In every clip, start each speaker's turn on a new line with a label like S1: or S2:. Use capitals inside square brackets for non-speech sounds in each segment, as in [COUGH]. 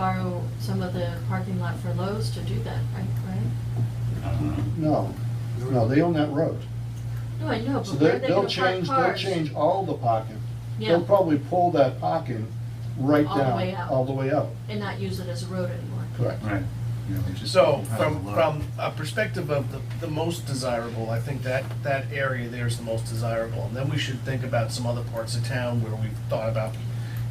S1: borrow some of the parking lot for Lowe's to do that, right, right?
S2: No, no, they own that road.
S1: No, I know,
S2: So
S1: but where
S2: they-
S1: are they gonna
S2: they'll
S1: park
S2: change,
S1: cars?
S2: they'll change all the parking.
S1: Yeah,
S2: They'll probably pull that parking right
S1: All the way
S2: down,
S1: out.
S2: all the way out.
S1: and not use it as a road anymore.
S2: Correct.
S3: Right. Yeah, we just-
S4: So
S3: Have
S4: from,
S3: a look.
S4: from a perspective of the, the most desirable, I think that, that area there is the most desirable. And then we should think about some other parts of town where we've thought about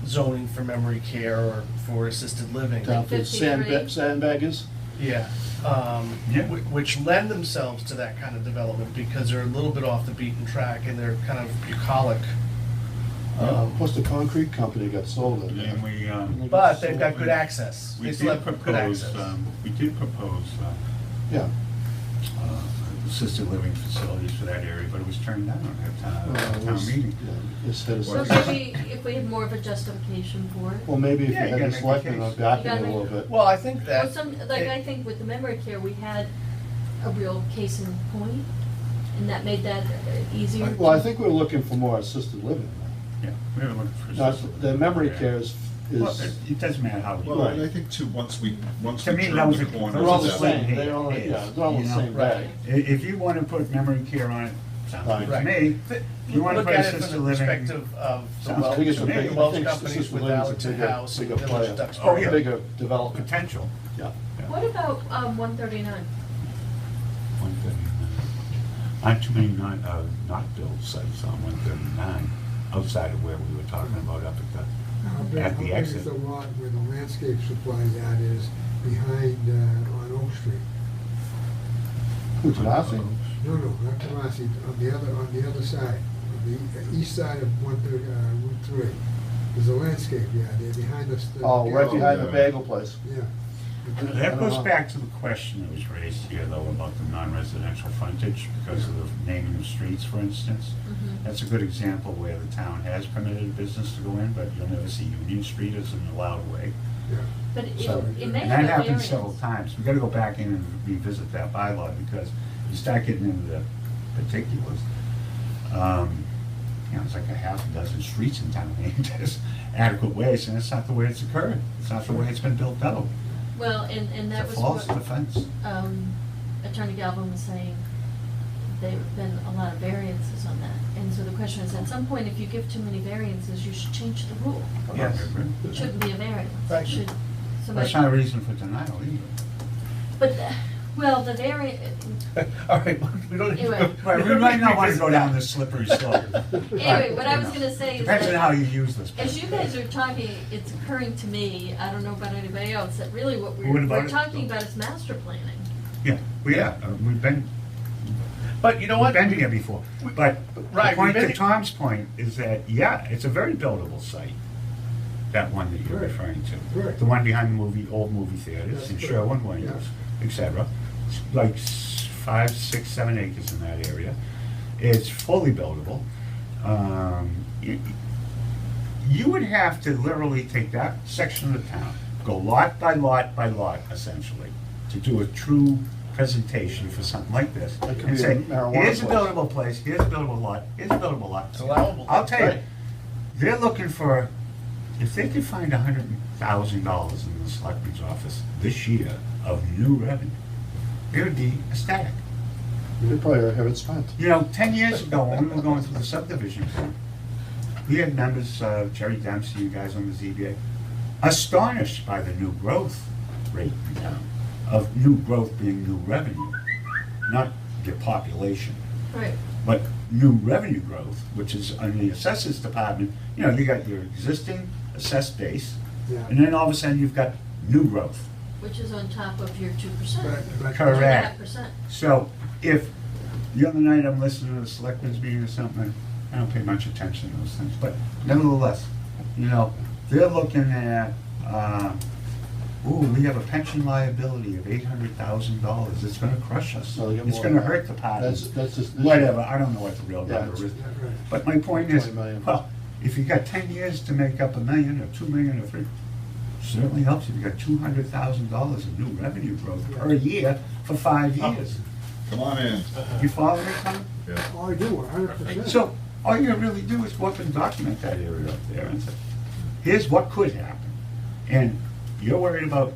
S4: zoning for memory care or for assisted living.
S2: Down to
S1: 53.
S2: sandbag, sandbaggers.
S4: Yeah, um,
S3: Yeah.
S4: wh- which lend themselves to that kind of development because they're a little bit off the beaten track and they're kind of bucolic. Um,
S2: Uh, Plus the concrete company got sold in there.
S3: And we, um,
S4: But they've got good access.
S3: we
S4: They still
S3: did
S4: have good
S3: propose,
S4: access.
S3: um, we did propose uh,
S2: Yeah,
S3: uh, assisted living facilities for that area, but it was turned down at
S2: Uh,
S3: town,
S2: it
S3: at town
S2: was-
S3: meeting.
S2: yeah, it's had a-
S1: So maybe if we had more of a justification for it.
S2: Well, maybe if you
S3: Yeah, you
S2: had
S3: gotta
S2: a
S3: make a
S2: selectman on
S3: case.
S2: backing
S1: You
S2: a
S1: gotta
S2: little
S1: make-
S2: bit.
S4: Well, I think
S1: Or
S4: that.
S1: some, like,
S4: it-
S1: I think with the memory care, we had a real case in point, and that made that uh, easier.
S2: Well, I
S1: to-
S2: think we're looking for more assisted living. now.
S3: Yeah, we were looking for.
S2: Not,
S3: assisted
S2: the
S3: living.
S2: memory
S3: Yeah.
S2: care is,
S3: Well,
S2: is,
S3: it it doesn't matter how you.
S5: Well,
S2: Right.
S5: and I think too, once we, once
S3: To
S5: we
S3: me,
S5: turn
S3: those
S5: the
S3: are-
S5: corner.
S2: they're all the
S3: It's
S2: same,
S3: same.
S2: they're all,
S3: It
S2: yeah,
S3: is,
S2: they're all
S3: you
S2: the
S3: know,
S2: same
S4: right.
S2: bag.
S3: I- If you want to put memory care on it, sounds good to
S2: Right.
S3: me.
S4: Th-
S3: You want to
S4: Look
S3: put
S4: at it from
S3: assisted
S4: the
S3: living.
S4: perspective of the
S3: Sounds
S4: Wells,
S3: good to me.
S4: the
S3: I
S4: Wells
S2: think
S4: companies
S2: assisted
S4: with
S2: living's a
S4: Alton
S2: bigger-
S4: House and
S2: bigger
S4: Village
S2: player.
S4: of Duxbury.
S3: Oh, yeah. [LAUGHS]
S2: Bigger development,
S3: Potential.
S2: yeah.
S1: What about, um, one thirty-nine?
S3: One thirty-nine. Aren't too many not, uh, not built sites on one thirty-nine, outside of where we were talking about up at
S6: How big,
S3: At
S6: how
S3: the
S6: big
S3: exit.
S6: is the lot where the landscape supply that is behind, uh, on Oak Street?
S2: Who's laughing?
S6: No, no, not Tomasi, on the other, on the other side, on the east side of one thirty, uh, Route three. There's a landscape, yeah, there behind us. the-
S2: Oh, right behind the
S5: yeah.
S2: bagel place.
S6: Yeah.
S3: the. That goes back to the question that was raised here, though, about the non-residential frontage because of the naming of streets, for instance. That's a good example where the town has permitted business to go in, but you'll never see Union Street as an allowed way.
S6: Yeah.
S1: But it,
S2: So-
S1: it may
S3: And
S1: have
S3: that
S1: a
S3: happened
S1: variance.
S3: several times. We gotta go back in and revisit that bylaw because you start getting into the particulars. Um, You know, it's like a half a dozen streets in town [LAUGHS] named as adequate ways, and that's not the way it's occurred. It's not the way it's been built out.
S1: Well, and, and that
S3: It's a
S1: was
S3: false
S1: what,
S3: defense.
S1: um, Attorney Galvin was saying, there've been a lot of variances on that. And so the question is, at some point, if you give too many variances, you should change the rule.
S4: Yes.
S1: It shouldn't be a variance. It
S4: Right.
S1: should,
S3: That's
S1: somebody,
S3: not a reason for denial either.
S1: but, the- well, the vari,
S4: All right, we don't. need to
S1: Anyway.
S4: go-
S3: Right, we might not
S4: [LAUGHS]
S3: wanna go down this slippery [LAUGHS] slope.
S1: anyway, what I was gonna say is that.
S3: Depends on how you use this.
S1: As you guys are talking, it's occurring to me, I don't know about anybody else, that really what
S3: What
S1: we're,
S3: about
S1: we're
S3: it?
S1: talking about is master planning.
S3: Yeah, we are. Uh, We've been
S4: But you know
S3: We've
S4: what?
S3: been here before, but the
S4: Right, we've
S3: point
S4: been
S3: to
S4: here-
S3: Tom's point is that, yeah, it's a very buildable site, that one that you're referring to.
S6: Right.
S3: The one behind the movie, old movie theaters
S6: That's
S3: in
S6: correct.
S3: Sherwin Williams, et cetera. It's Like s- five, six, seven acres in that area. It's fully buildable. Um, y- You would have to literally take that section of the town, go lot by lot by lot essentially, to do a true presentation for something like this.
S2: That could
S3: and
S2: be a
S3: say,
S2: marijuana
S3: Here's a
S2: place."
S3: buildable place, here's a buildable lot, here's a buildable lot.
S4: It's allowable.
S3: I'll tell you,
S2: Right.
S3: they're looking for, if they could find a hundred thousand dollars in the selectmen's office this year of new revenue, they would be ecstatic.
S2: We probably have it spent.
S3: You know, ten years ago, when we were going through the subdivision plan, we had members, uh, Jerry Dempsey, you guys on the ZBA, astonished by the new growth rate in town, of new growth being new revenue, not your population,
S1: Right.
S3: but new revenue growth, which is on the assessors department, you know, you got your existing assessed base,
S6: Yeah.
S3: and then all of a sudden, you've got new growth.
S1: Which is on top of your two percent.
S6: But- but-
S3: Correct.
S1: percent.
S3: So if, the other night I'm listening to the selectmen's meeting or something, I don't pay much attention to those things, but nevertheless, you know, they're looking at, uh, ooh, we have a pension liability of eight hundred thousand dollars, it's gonna crush us.
S2: No, they get
S3: It's
S2: more
S3: gonna
S2: than
S3: hurt the
S2: that.
S3: party.
S2: That's, that's just. this-
S3: Whatever, I don't know what the real
S2: Yeah,
S3: number is.
S6: Yeah, right.
S3: But my point is,
S2: 20 million.
S3: well, if you got ten years to make up a million or two million or three, certainly helps if you got two hundred thousand dollars in new revenue growth per year for five years.
S5: Come on in.
S3: You follow me, Tom?
S5: Yeah.
S6: Oh, I do, a hundred percent.
S3: So all you really do is go up and document that area up there and say, here's what could happen. And You're worried about